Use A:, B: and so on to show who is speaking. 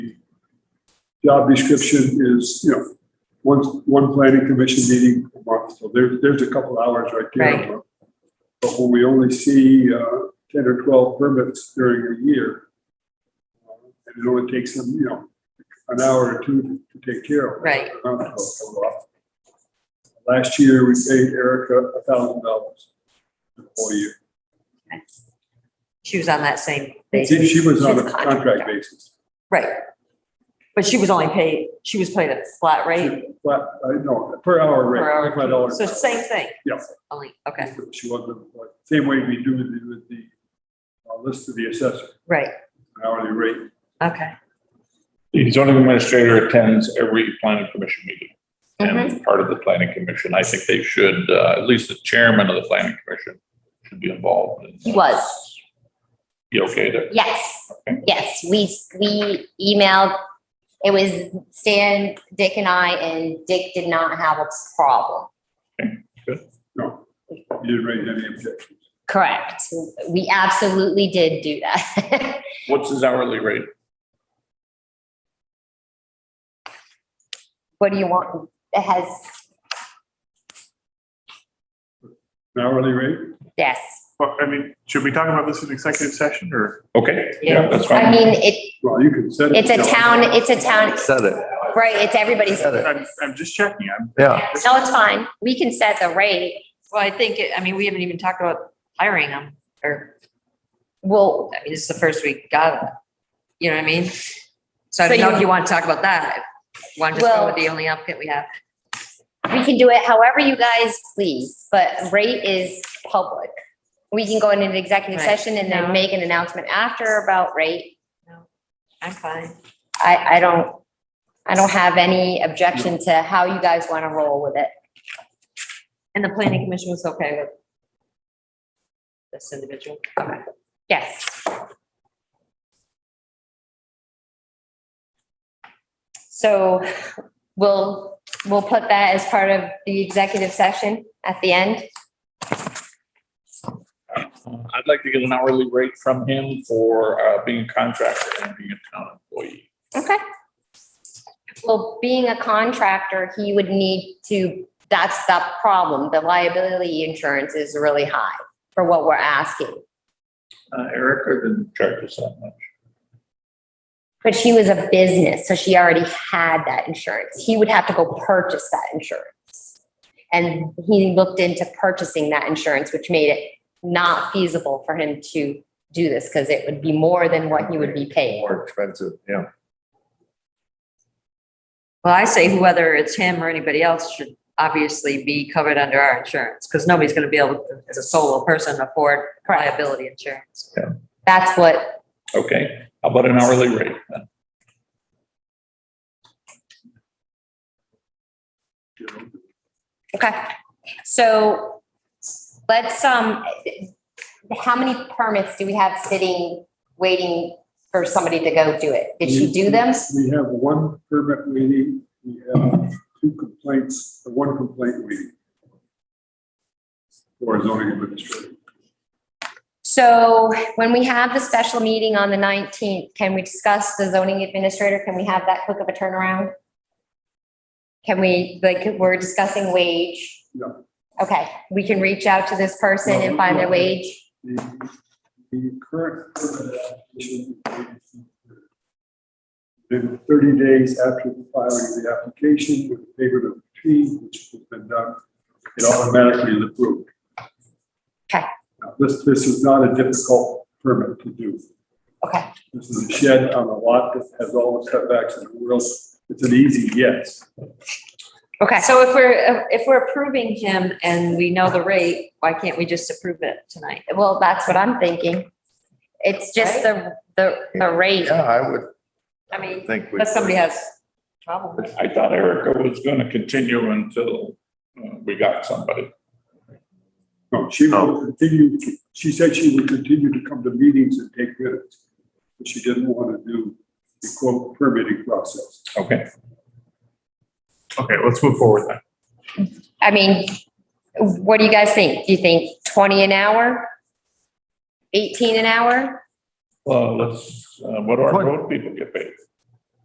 A: job description is, you know, one, one planning commission meeting a month, so there's, there's a couple hours right
B: Right.
A: there. But when we only see, uh, ten or twelve permits during a year, uh, and it only takes them, you know, an hour or two to take care of. it.
B: Right.
A: Not to come off. Last year, we paid Erica a thousand dollars for the whole year.
B: She was on that same
A: She
B: basis.
A: she was on
B: She's
A: a
B: a
A: contract
B: contractor.
A: basis.
B: Right. But she was only paid, she was paid a flat rate,
A: But, uh, no, per hour rate.
B: Per hour.
A: five dollars
B: so
A: an hour.
B: same thing.
A: Yeah.
B: Only, okay,
A: She wasn't, like, same way we do with the, with the uh, list of the assessor,
B: right,
A: hourly rate.
B: okay.
C: The zoning administrator attends every planning commission meeting
D: Mm-hmm.
C: and is part of the planning commission. I think they should, uh, at least the chairman of the planning commission should be involved. in-
D: He was,
C: Be okay to,
D: yes, yes, we, we emailed, it was Stan, Dick and I, and Dick did not have a problem.
A: No, you didn't raise any objections.
D: Correct, we absolutely did do that.
C: what's his hourly rate?
D: What do you want, it has,
A: An Hourly rate?
D: yes.
E: Well, I mean, should we talk about this in executive session or?
C: Okay, yeah, that's
D: I
C: fine.
D: mean, it,
A: Well, you can set. it.
D: it's a town, it's a town,
F: Said it,
D: right, it's everybody's.
F: said it,
E: I'm, I'm just checking. I'm,
F: yeah.
D: No, it's fine, we can set the rate,
B: Well, I think, it- I mean, we haven't even talked about hiring them, or,
D: well,
B: I mean, this is the first we got it. You know what I mean? So I don't
D: So
B: know
D: you-
B: if you want to talk about that, want to go
D: Well-
B: with the only applicant we have.
D: we can do it however you guys please, but rate is public. We can go into an executive
B: Right.
D: session and
B: No.
D: then make an announcement after about rate.
B: I'm fine.
D: I, I don't, I don't have any objection to how you guys want to roll with it.
B: And the planning commission was okay with this individual? Okay.
D: Yes. So we'll, we'll put that as part of the executive session at the end.
C: I'd like to get an hourly rate from him for, uh, being a contractor and being a town employee.
D: Okay. Well, being a contractor, he would need to, that's the problem. The liability insurance is really high for what we're asking.
C: Uh, Erica didn't charge us that much.
D: But she was a business, so she already had that insurance. He would have to go purchase that insurance. And he looked into purchasing that insurance, which made it not feasible for him to do this because it would be more than what he would be paying.
F: More expensive, yeah.
B: Well, I say whether it's him or anybody else should obviously be covered under our insurance, because nobody's gonna be able, to, as a solo person, afford liability insurance.
D: That's what,
C: Okay, how about an hourly rate then?
D: okay. So let's, um, how many permits do we have sitting, waiting for somebody to go do it? Did she do them?
A: We have one permit waiting, we have two complaints, uh, one complaint waiting. For zoning administrator.
D: So when we have the special meeting on the nineteenth, can we discuss the zoning administrator? Can we have that quick of a turnaround? Can we, like, we're discussing wage?
A: No.
D: Okay, we can reach out to this person and find their wage.
A: The, the current permit application is waiting for- Then thirty days after the filing of the application with the payment of the fee, which has been done, it automatically is approved.
D: Okay.
A: Now, This, this is not a difficult permit to do.
D: Okay,
A: This is a shed on a lot that has all the setbacks in the world. It's an easy yes.
D: okay.
B: So if we're, if we're approving him and we know the rate, why can't we just approve it tonight?
D: Well, that's what I'm thinking. It's just the, the, the rate.
F: Yeah, I would
B: I mean,
F: think we.
B: unless somebody has trouble. with it.
C: I thought Erica was gonna continue until uh, we got somebody.
A: No, she will continue, she said she would continue to come to meetings and take minutes. But she didn't want to do the quote permitting process.
C: Okay,
E: okay, let's move forward then.
D: I mean, what do you guys think? Do you think twenty an hour? Eighteen an hour?
C: uh, well, let's, uh, what do our road people get paid?